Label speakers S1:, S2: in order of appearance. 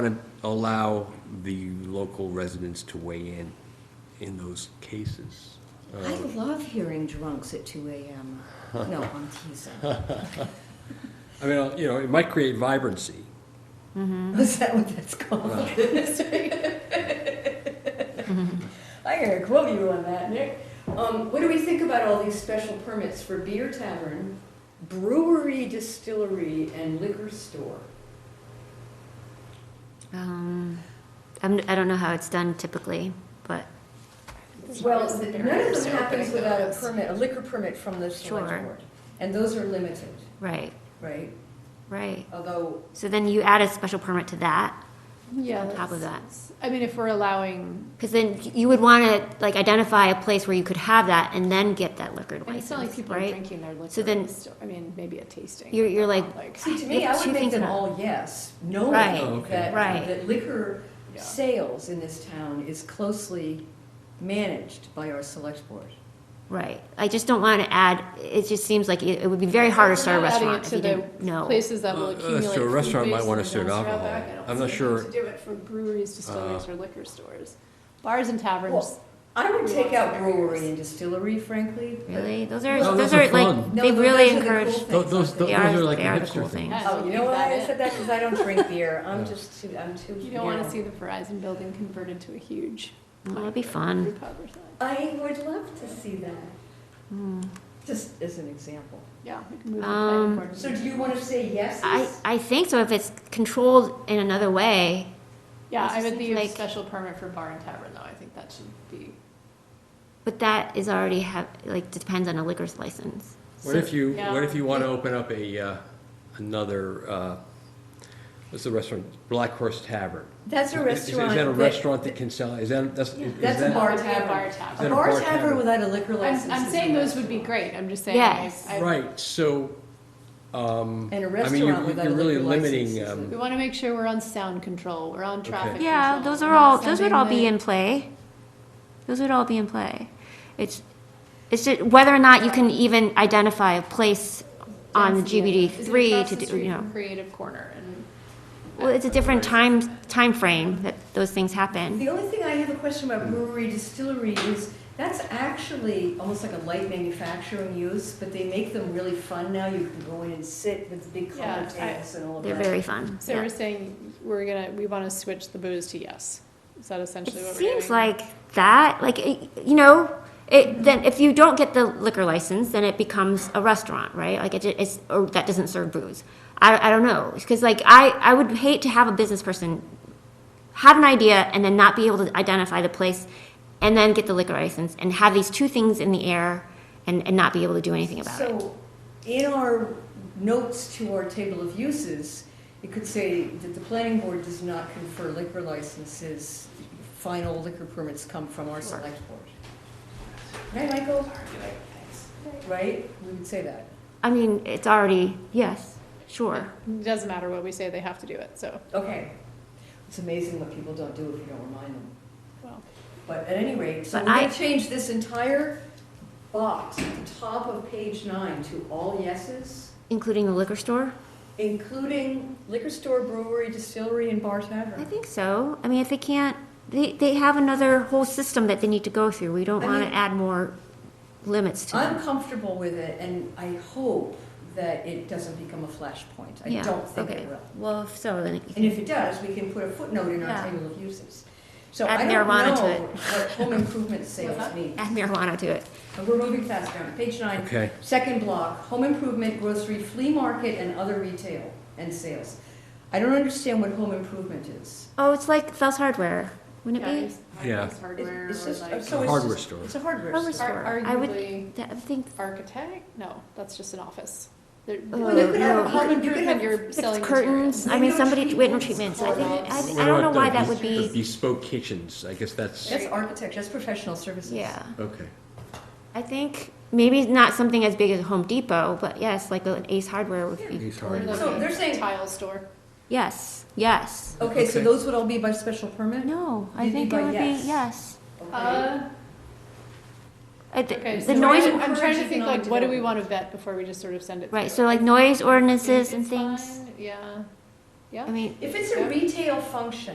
S1: to allow the local residents to weigh in, in those cases. Um,
S2: I love hearing drunks at two AM. No, I'm teasing.
S1: I mean, uh, you know, it might create vibrancy.
S2: Is that what that's called?
S3: I gotta quote you on that, Nick. Um, what do we think about all these special permits for beer tavern, brewery, distillery, and liquor store?
S4: Um, I'm, I don't know how it's done typically, but
S3: Well,
S5: Yes, the
S3: none
S5: barriers
S3: of
S5: to
S3: them happens
S5: opening
S3: without a
S5: those.
S3: permit, a liquor permit from the select
S4: Sure.
S3: board. And those are limited,
S4: right,
S3: right?
S4: right.
S3: Although,
S4: So then you add a special permit to that
S5: Yeah.
S4: on top of that.
S5: that's- I mean, if we're allowing,
S4: Because then you would want to like identify a place where you could have that and then get that liquor
S5: and it's not like
S4: license,
S5: people are
S4: right?
S5: drinking their liquor.
S4: then-
S5: in the store. I mean, maybe a tasting.
S4: You're- you're
S5: but not,
S3: see, to me,
S4: It's
S3: I
S4: two
S3: would make
S4: things
S3: them
S4: about-
S3: all yes, knowing
S4: Right.
S1: Oh, okay.
S3: that,
S4: Right.
S3: that liquor
S5: Yeah.
S3: sales in this town is closely managed by our select board.
S4: Right. I just don't want to add, it just seems like it it would be very hard to
S5: We're
S4: start a
S5: not adding
S4: restaurant
S5: it
S4: if
S5: to
S4: you
S5: the
S4: didn't know.
S5: Places that will
S1: Uh, uh, so a
S5: accumulate. food
S1: restaurant might
S5: waste
S1: wanna
S5: and
S1: serve
S5: dumpster out
S1: alcohol.
S5: back. I don't
S1: I'm not
S5: see a
S1: sure- Uh.
S5: need To do it for breweries, distilleries, or liquor stores. Bars and taverns,
S3: Well, I would
S5: We
S3: take
S5: want
S3: out
S5: some
S3: brewery
S5: barriers.
S3: and distillery, frankly. but-
S4: Really? Those are,
S1: No,
S4: those
S1: those are
S4: are like,
S1: fun.
S3: No,
S4: they
S3: those
S4: really
S3: are the cool
S4: encourage,
S1: Those, those, those
S4: they
S1: are
S4: are,
S1: like the
S4: they are the
S1: hipster
S4: cool things.
S1: things.
S5: Yeah.
S3: Oh, you know
S5: Leave
S3: why
S5: that
S3: I
S5: in.
S3: said that? Because I don't drink beer. I'm just too, I'm too.
S5: you don't want
S3: yeah.
S5: to see the Verizon building converted to a huge.
S4: Oh, that'd
S5: like,
S4: be fun.
S5: brew pub or something.
S3: I would love to see that, Hmm. just as an example.
S5: Yeah. we can move the
S4: Um,
S5: planning board.
S3: So do you want to say yes?
S4: I, I think so if it's controlled in another way,
S5: Yeah,
S4: This
S5: I would
S4: seems
S5: leave
S4: like-
S5: special permit for bar and tavern, though, I think that should be,
S4: but that is already have, like, depends on a liquor's license.
S1: What if you,
S5: Yeah.
S1: what if you want to open up a, uh, another, uh, what's the restaurant, Black Horse Tavern?
S3: That's a
S1: Is- is-
S3: restaurant.
S1: Is that a restaurant that can sell, is that, that's, is
S3: That's a
S1: that-
S3: bar
S5: That'd be a
S3: tavern.
S5: bar tavern. Is
S1: that
S3: A
S1: a
S3: bar
S1: bar
S3: tavern
S1: tavern?
S3: without a liquor license.
S5: I'm, I'm
S3: is
S5: saying
S3: a
S5: those would be
S3: restaurant.
S5: great, I'm just saying.
S4: Yes.
S5: I- I-
S1: Right, so, um.
S3: And a
S1: I mean, you're-
S3: restaurant without a
S1: You're really
S3: liquor license
S1: limiting,
S3: is a-
S1: um,
S5: We want to make sure we're on sound control, we're on traffic control.
S4: Yeah, those are
S5: we're not
S4: all, those would all be
S5: sending
S4: in play. Those would all be in play. It's, it's just whether or not you can even identify a place
S5: the
S4: on the
S5: density.
S4: GBD
S5: Is it
S4: three
S5: across
S4: to
S5: the
S4: do,
S5: street
S4: you know.
S5: from Creative Corner and.
S4: Well, it's a different time, timeframe that those things happen.
S3: The only thing I have a question about brewery distillery is, that's actually almost like a light manufacturing use, but they make them really fun now. You can go in and sit with the big
S5: Yeah,
S3: coffee tables and all of
S4: They're
S3: that.
S4: very fun,
S5: So
S4: yeah.
S5: we're saying, we're gonna, we want to switch the booze to yes, is that
S4: It
S5: essentially what we're doing?
S4: seems like that, like, it- you know, it, then if you don't get the liquor license, then it becomes a restaurant, right? Like it, ju- it's, or that doesn't serve booze. I, I don't know, because like I, I would hate to have a business person have an idea and then not be able to identify the place and then get the liquor license and have these two things in the air and, and not be able to do anything about it.
S3: So, in our notes to our table of uses, it could say that the planning board does not confer liquor licenses. Final liquor permits come from our select board. Right, Michael? Right? We would say that.
S4: I mean, it's already, yes, sure.
S5: It doesn't matter what we say, they have to do it, so,
S3: Okay. It's amazing what people don't do if you don't remind them.
S5: well,
S3: But at any rate, so
S4: But
S3: we're going
S4: I-
S3: to change this entire box at the top of page nine to all yeses,
S4: Including the liquor store?
S3: including liquor store, brewery, distillery, and bar
S4: I
S3: tavern.
S4: think so. I mean, if they can't, they, they have another whole system that they need to go through. We don't
S3: I
S4: want
S3: mean-
S4: to add more limits to
S3: I'm
S4: them.
S3: comfortable with it, and I hope that it doesn't become a flashpoint. I
S4: Yeah,
S3: don't think
S4: okay.
S3: it will.
S4: Well, if so, then. it-
S3: And if it does, we can put a footnote in our
S4: Yeah.
S3: table of uses. So
S4: Add
S3: I don't
S4: marijuana to
S3: know
S4: it. Uh-huh.
S3: what home improvement sales mean.
S4: Add marijuana to it.
S3: And we're moving fast now. Page nine.
S1: okay,
S3: Second block, home improvement, grocery, flea market, and other retail and sales. I don't understand what home improvement is.
S4: Oh, it's like Fell's Hardware, wouldn't
S5: yeah,
S4: it
S5: it's
S1: Yeah.
S5: hardware, hardware,
S3: It's
S5: or
S3: just, so
S5: like,
S3: it's
S1: A
S3: just.
S1: hardware store.
S3: It's a hardware
S4: Hardware
S3: store.
S5: ar-
S4: I would-
S5: arguably.
S4: be? That- I think,
S5: architect? No, that's just an office. There-
S4: Well,
S3: you could have a
S5: you
S3: home-
S5: could
S3: you could
S5: have
S3: have
S5: your
S3: fixed
S5: selling
S4: curtains,
S5: materials.
S4: I mean,
S3: Window
S4: somebody, window
S3: treatments,
S4: treatments, I think,
S5: doorknobs.
S4: I,
S1: What
S4: I don't know
S1: about
S4: why
S1: the
S4: that would
S1: bes- the
S4: be,
S1: Bespoke kitchens, I guess that's,
S3: That's architecture, that's professional services.
S4: yeah.
S1: okay.
S4: I think maybe not something as big as Home Depot, but yes, like an Ace Hardware would be.
S1: Ace
S5: Or
S1: Hardware.
S5: like
S3: So
S5: a
S3: they're saying-
S5: Tile store.
S4: Yes, yes.
S3: Okay, so
S1: Okay.
S3: those would all be by special permit?
S4: No, I
S3: You'd be
S4: think
S3: by
S4: it would be,
S3: Oh, yes.
S4: yes.
S3: Okay.
S5: Uh,
S4: Uh, th-
S5: okay,
S4: The
S5: so
S4: noise,
S5: I'm, I'm trying to
S3: encourages
S5: think like,
S3: non-development.
S5: what do we want to vet before we just sort of send it?
S4: right,
S5: through?
S4: so like noise
S5: I think
S4: ordinances and
S5: it's
S4: things.
S5: fine, Yeah, Yeah.
S4: I mean.
S3: If it's a retail function,